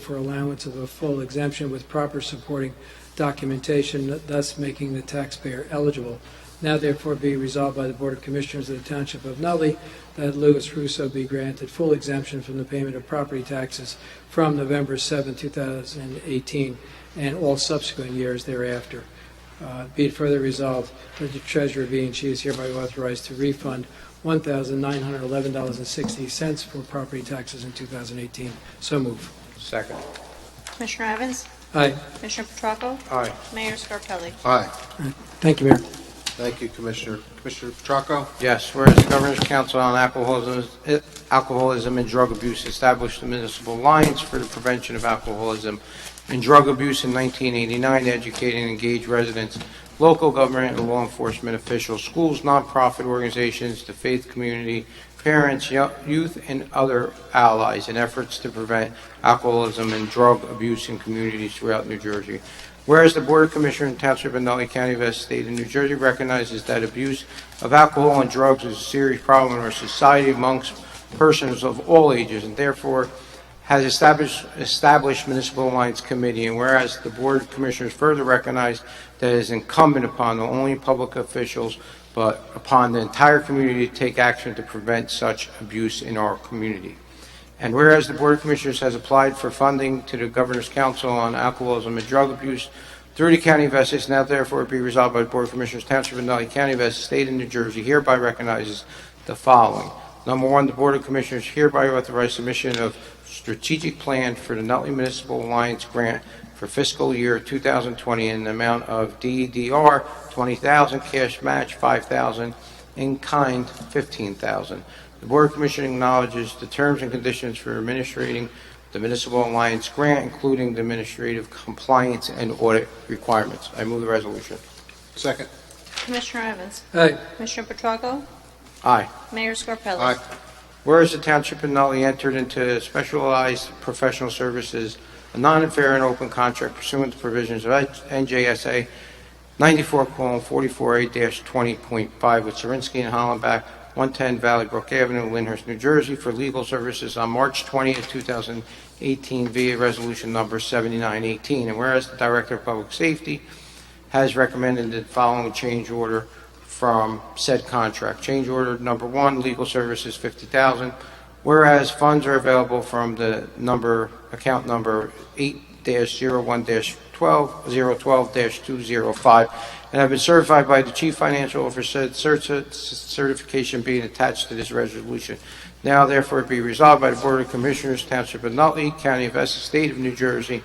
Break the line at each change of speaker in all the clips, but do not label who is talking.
for allowance of a full exemption with proper supporting documentation, thus making the taxpayer eligible. Now therefore be resolved by the Board of Commissioners of the Township of Nutley that Louis Russo be granted full exemption from the payment of property taxes from November 7, 2018, and all subsequent years thereafter. Uh, Be it further resolved that the treasurer be and she is hereby authorized to refund $1,911.60 for property taxes in 2018. So move.
Second.
Commissioner Evans?
Aye.
Commissioner Petracco?
Aye.
Mayor Scarpelli?
Aye.
Thank you, Mayor.
Thank you, Commissioner. Commissioner Petracco?
Yes, whereas the Governor's Council on Alcoholism Alcoholism and Drug Abuse established the Municipal Alliance for the Prevention of Alcoholism and Drug Abuse in 1989, educate and engage residents, local government, and law enforcement officials, schools, nonprofit organizations, the faith community, parents, yo- youth, and other allies in efforts to prevent alcoholism and drug abuse in communities throughout New Jersey. Whereas the Board of Commissioners in Township of Nutley County of Essex State of New Jersey recognizes that abuse of alcohol and drugs is a serious problem in our society amongst persons of all ages, and therefore has established, established Municipal Alliance Committee, and whereas the Board of Commissioners further recognize that it is incumbent upon not only public officials, but upon the entire community to take action to prevent such abuse in our community. And whereas the Board of Commissioners has applied for funding to the Governor's Council on Alcoholism and Drug Abuse through the County of Essex, now therefore be resolved by the Board of Commissioners Township of Nutley County of Essex State of New Jersey hereby recognizes the following. Number one, the Board of Commissioners hereby authorize submission of strategic plan for the Nutley Municipal Alliance Grant for fiscal year 2020 in the amount of E DDR 20,000, cash match 5,000, in kind 15,000. The Board of Commissioners acknowledges the terms and conditions for administering the Municipal Alliance Grant, including the administrative compliance and audit requirements. I move the resolution.
Second.
Commissioner Evans?
Aye.
Commissioner Petracco?
Aye.
Mayor Scarpelli?
Aye.
Whereas the Township of Nutley entered into specialized professional services, a non and fair and open contract pursuant to provisions of NJSA 94:44A-20.5 with Zirinsky and Hollenbach, 110 Valley Brook Avenue, Lyndhurst, New Jersey, for legal services on March 20th, 2018 via Resolution Number 7918. And whereas the Director of Public Safety has recommended the following change order from said contract. Change order number one, legal services, 50000 whereas funds are available from the number, account number 8-01-12-012-205, and have been certified by the Chief Financial Officer, cert- certification being attached to this resolution. Now therefore be resolved by the Board of Commissioners, Township of Nutley, County of Essex, State of New Jersey,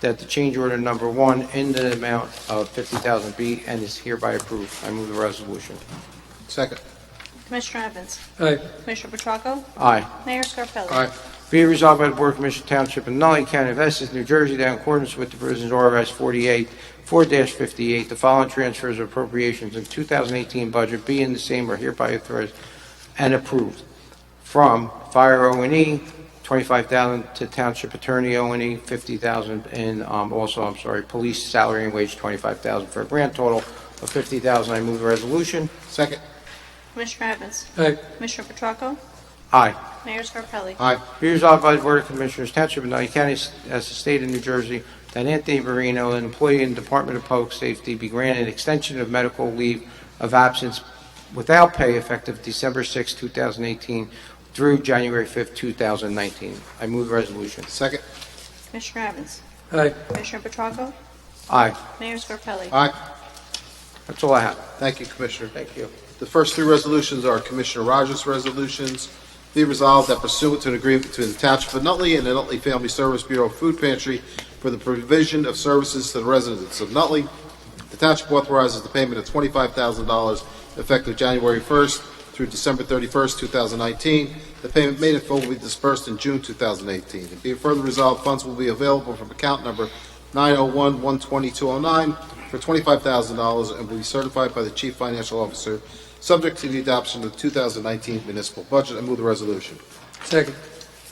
that the change order number one in the amount of 50000 be and is hereby approved. I move the resolution.
Second.
Commissioner Evans?
Aye.
Commissioner Petracco?
Aye.
Mayor Scarpelli?
Aye.
Be it resolved by the Board of Commissioners of Township of Nutley County of Essex, New Jersey, that in accordance with the provisions of RS 48, 4-58, the following transfers or appropriations in 2018 budget be in the same are hereby authorized and approved. From Fire O&E, 25000 to Township Attorney E, O&E, 50000 and um, also, I'm sorry, Police Salary and Wage, 25000 for a grand total of 50000 I move the resolution.
Second.
Commissioner Evans?
Aye.
Commissioner Petracco?
Aye.
Mayor Scarpelli?
Aye.
Be resolved by the Board of Commissioners, Township of Nutley County, as the State of New Jersey, that Anthony Marino, an employee in the Department of Public Safety, be granted an extension of medical leave of absence without pay effective December 6, 2018 through January 5, 2019. I move the resolution.
Second.
Commissioner Evans?
Aye.
Commissioner Petracco?
Aye.
Mayor Scarpelli?
Aye.
That's all I have.
Thank you, Commissioner.
Thank you.
The first three resolutions are Commissioner Rogers' resolutions. Be resolved that pursuant to an agreement between the Township of Nutley and the Nutley Family Service Bureau Food Pantry for the provision of services to the residents of Nutley, the Township authorizes the payment of $25,000 effective January 1st through December 31st, 2019. The payment made in full will be dispersed in June 2018. And be it further resolved, funds will be available from account number 901-12209 for $25,000 and will be certified by the Chief Financial Officer, subject to the adoption of the 2019 municipal budget. I move the resolution.
Second.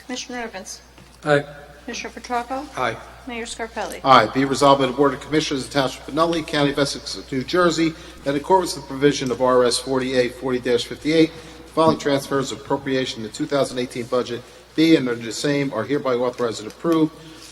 Commissioner Evans?
Aye.
Commissioner Petracco?
Aye.
Mayor Scarpelli?
Aye, be resolved by the Board of Commissioners of the Township of Nutley, County of Essex, New Jersey, that in accordance with the provision of RS 40A 40-58, following transfers of appropriation in the 2018 budget be and are the same are hereby authorized and approved